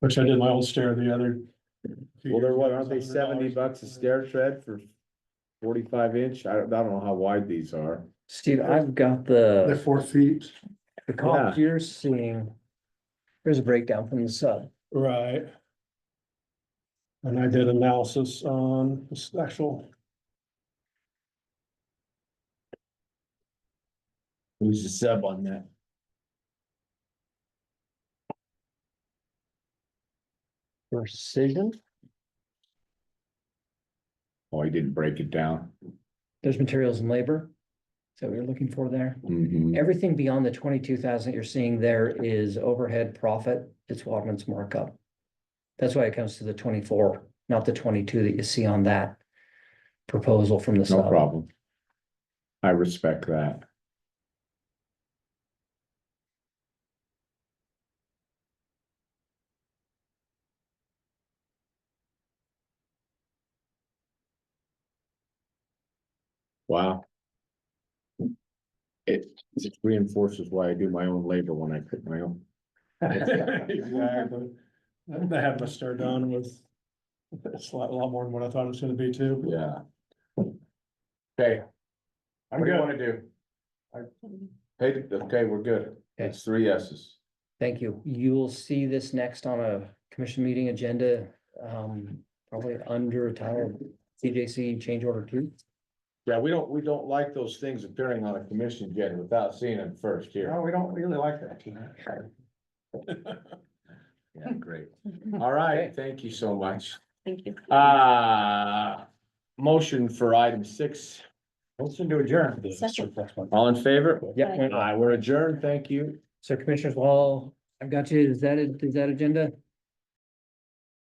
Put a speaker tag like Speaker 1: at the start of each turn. Speaker 1: Which I did my old stair the other. few
Speaker 2: Well, they're
Speaker 1: years
Speaker 2: what,
Speaker 1: ago,
Speaker 2: aren't they
Speaker 1: it's
Speaker 2: seventy
Speaker 1: $100.
Speaker 2: bucks a stair tread for forty-five inch? I don't, I don't know how wide these are.
Speaker 3: Steve, I've got
Speaker 1: They're
Speaker 3: the,
Speaker 1: four feet.
Speaker 3: the cost you're seeing. There's a breakdown from the sub.
Speaker 1: Right. And I did analysis on this actual,
Speaker 2: Who's the sub on that?
Speaker 3: Precision,
Speaker 2: Oh, he didn't break it down.
Speaker 3: there's materials and labor. So we are looking for there.
Speaker 2: Mhm.
Speaker 3: Everything beyond the twenty-two thousand you're seeing there is overhead profit. It's Wadman's markup. That's why it comes to the twenty-four, not the twenty-two that you see on that proposal from the
Speaker 2: No
Speaker 3: sub.
Speaker 2: problem. I respect that. Wow. It it reinforces why I do my own labor when I pick my own.
Speaker 1: exactly. They had my stair done with. It's a lot, a lot more than what I thought it was gonna be too.
Speaker 2: Yeah. Okay. What do you wanna do? Hey, okay, we're good. It's three yeses.
Speaker 3: Thank you. You'll see this next on a commission meeting agenda, um, probably under title CJC change order two.
Speaker 2: Yeah, we don't, we don't like those things appearing on a commission agenda without seeing them first here.
Speaker 1: we don't really like that.
Speaker 2: Yeah, great. All right, thank you so much.
Speaker 4: Thank you.
Speaker 2: Uh, motion for item six. Motion to adjourn.
Speaker 4: Second.
Speaker 2: All in favor?
Speaker 3: Yeah,
Speaker 2: Aye, we're adjourned. Thank you.
Speaker 3: so Commissioners Wall, I've got you. Is that, is that agenda?